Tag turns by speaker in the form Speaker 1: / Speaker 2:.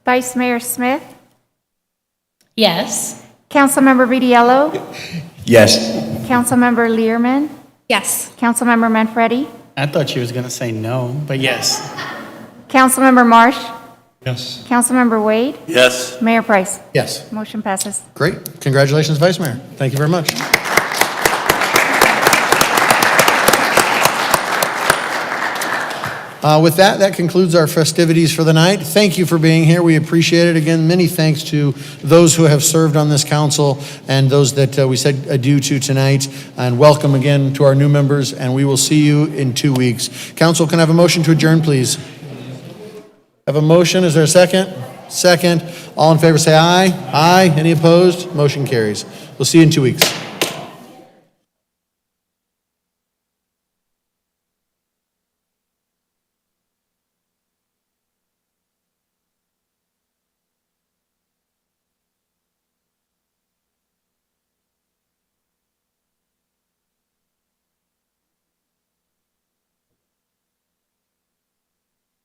Speaker 1: Vice Mayor Smith,
Speaker 2: Yes.
Speaker 1: Councilmember Vitiello,
Speaker 3: Yes.
Speaker 1: Councilmember Learman,
Speaker 2: Yes.
Speaker 1: Councilmember Manfredi,
Speaker 4: I thought she was going to say no, but yes.
Speaker 1: Councilmember Marsh,
Speaker 4: Yes.
Speaker 1: Councilmember Wade,
Speaker 3: Yes.
Speaker 1: Mayor Price.
Speaker 5: Yes.
Speaker 1: Motion passes.
Speaker 5: Great. Congratulations, Vice Mayor. Thank you very much. Uh, With that, that concludes our festivities for the night. Thank you for being here. We appreciate it. Again, many thanks to those who have served on this council and those that uh, we said adieu to tonight. And welcome again to our new members, and we will see you in two weeks. Council, can I have a motion to adjourn, please? Have a motion, is there a second? Second. All in favor, say aye. Aye. Any opposed? Motion carries. We'll see you in two weeks.